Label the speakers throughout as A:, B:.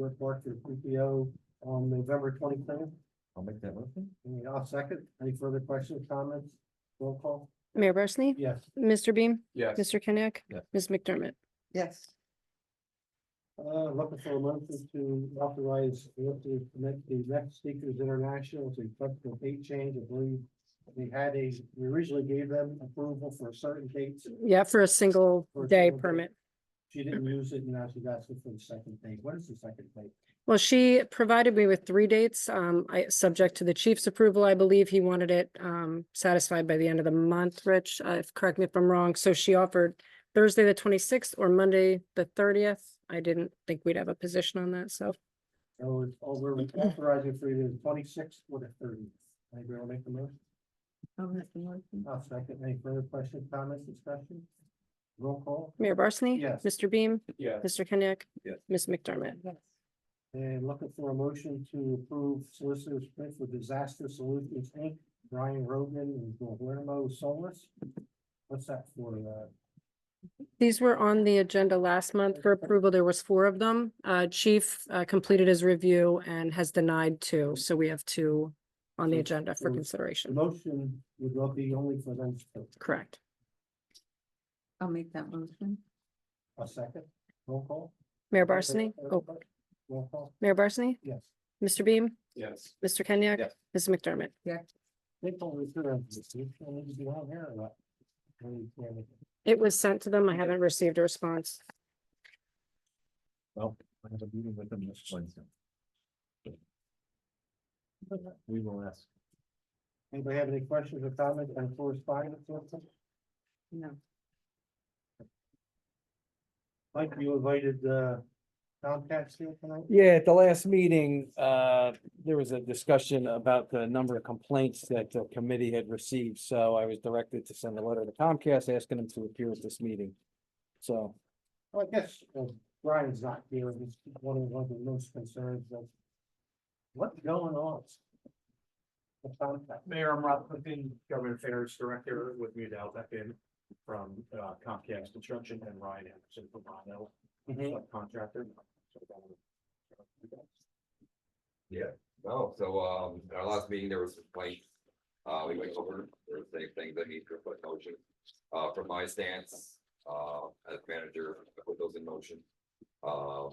A: report to the PTO on November twenty-third.
B: I'll make that motion.
A: And I'll second. Any further questions, comments? Roll call?
C: Mayor Barsney?
A: Yes.
C: Mr. Beam?
D: Yes.
C: Mr. Kenick?
B: Yes.
C: Ms. McDermott?
E: yes,
A: Uh, looking for a motion to authorize Anthony to make the next Speakers International to effect a date change. I believe we had a, we originally gave them approval for certain dates.
C: Yeah, for a single
A: For a
C: day
A: single day.
C: permit.
A: She didn't use it and now she's asking for the second date. What is the second date?
C: Well, she provided me with three dates, um, I, subject to the chief's approval, I believe he wanted it, um, satisfied by the end of the month, Rich, uh, if- correct me if I'm wrong, so she offered Thursday, the twenty-sixth, or Monday, the thirtieth, I didn't think we'd have a position on that, so,
A: So it's over authorizing for either the twenty-sixth or the thirtieth. Anybody want to make the motion?
E: I'll make the motion,
A: I'll second. Any further questions, comments, discussion? Roll call.
C: Mayor Barsney?
A: Yes.
C: Mr. Beam?
D: Yes.
C: Mr. Kenick?
B: Yes.
C: Ms. McDermott?
E: yes,
A: And looking for a motion to approve solicitors print for disaster solutions, Inc., Brian Rogan and Guillermo Solis. What's that for, uh,
C: These were on the agenda last month for approval. There was four of them. Uh, Chief uh, completed his review and has denied two, so we have two on the
A: So-
C: agenda for
A: so- the
C: consideration.
A: motion would not be only for them, to-
C: Correct.
E: I'll make that motion,
A: a second, roll call?
C: Mayor Barsney? Oh,
A: Roll call,
C: Mayor Barsney?
A: yes.
C: Mr. Beam?
D: Yes.
C: Mr. Kenyek?
B: Yes.
C: Ms. McDermott?
A: They told me to, you need to be on here or what? We can't-
C: It was sent to them. I haven't received a response.
B: Well, I have a meeting with them next Wednesday. We will ask.
A: Anybody have any questions or comments on correspondence or something?
E: no,
A: Mike, you invited, uh, Comcast here tonight?
F: Yeah, at the last meeting, uh, there was a discussion about the number of complaints that the committee had received, so I was directed to send a letter to Comcast asking them to appear at this meeting. So,
A: Well, I guess uh, Brian's not here, and it's one of one of the most concerns of what's going on. The contact,
D: Mayor, I'm Rob Clifton, Government Affairs Director with me now, that in from uh, Comcast Construction and Ryan Anderson from Ronell
A: Mm-hmm.
F: Mm-hmm.
D: Contractor.
G: No, so, um, in our last meeting, there was complaints. Uh, we went over, there were same things that need to put in motion. Uh, from my stance, uh, as manager, I put those in motion. Um,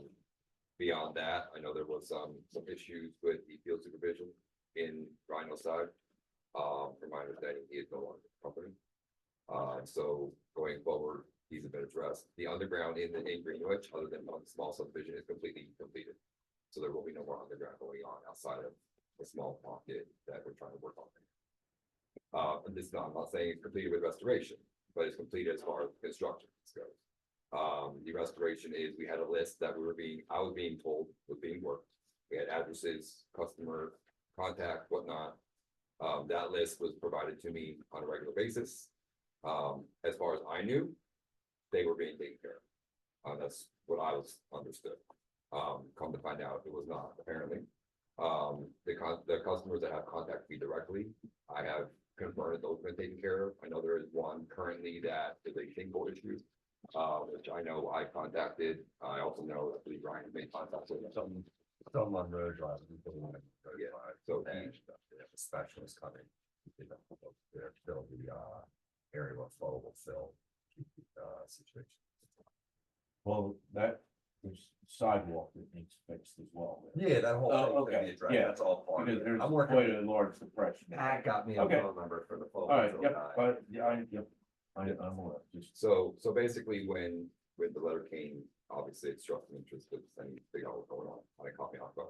G: beyond that, I know there was some, some issues with the field supervision in Rhino side. Um, from my understanding, he is no longer with the company. Uh, so going forward, these have been addressed. The underground in, in Greenwich, other than one small subdivision, is completely completed. So there will be no more underground going on outside of the small pocket that we're trying to work on. Uh, and this is not, I'm not saying it's completed with restoration, but it's completed as far as construction goes. Um, the restoration is, we had a list that we were being, I was being told was being worked. We had addresses, customer contact, whatnot. Um, that list was provided to me on a regular basis. Um, as far as I knew, they were being taken care of. Uh, that's what I was understood. Um, come to find out, it was not apparently. Um, the con, the customers that have contacted me directly, I have confirmed that those have been taken care of. I know there is one currently that is a single issue. Uh, which I know I contacted. I also know that Lee Ryan made contact with some
B: Some on road drive.
G: yeah, so each, a specialist coming. They're still the, uh, area of flowable fill, uh, situation.
B: Well, that, there's sidewalk that needs fixed as well.
G: Yeah, that whole
B: Oh,
G: thing,
B: okay,
G: that address,
B: yeah.
G: that's all part of
B: Because
G: it.
B: there's
G: I'm working,
B: quite a large depression. All
G: Matt got me a
B: Okay.
G: phone number for the flowable.
B: right,
G: fill guy.
B: yep, but, yeah, I, yep, I, I'm aware, just.
G: So, so basically when, when the letter came, obviously it struck an interest because I need to figure out what's going on, and it caught me off guard.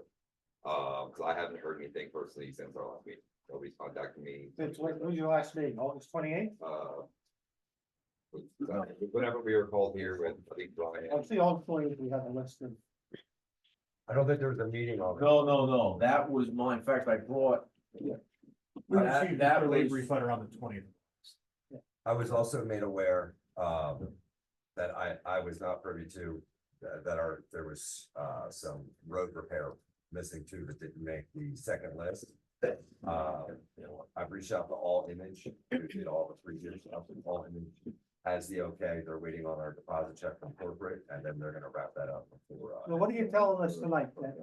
G: Um, cause I haven't heard anything personally since our last meeting. Nobody's contacted me.
A: That's what, when was your last meeting, August twenty-eighth?
G: uh.
B: uh,
G: Whenever we were called here with, I think Brian.
A: I see all four of we have a list of.
G: I don't think there was a meeting on
B: No, no, no, that was mine, in fact, I brought. That, that was,
D: letter on the twentieth.
G: I was also made aware, um, that I, I was not privy to, uh, that, that are, there was, uh, some road repair missing too that didn't make the second list. Uh, I've reached out to all image, who did all the three years, all image, has the okay, they're waiting on our deposit check from corporate, and then they're gonna wrap that up before. uh,
A: Well, what are you telling us tonight, that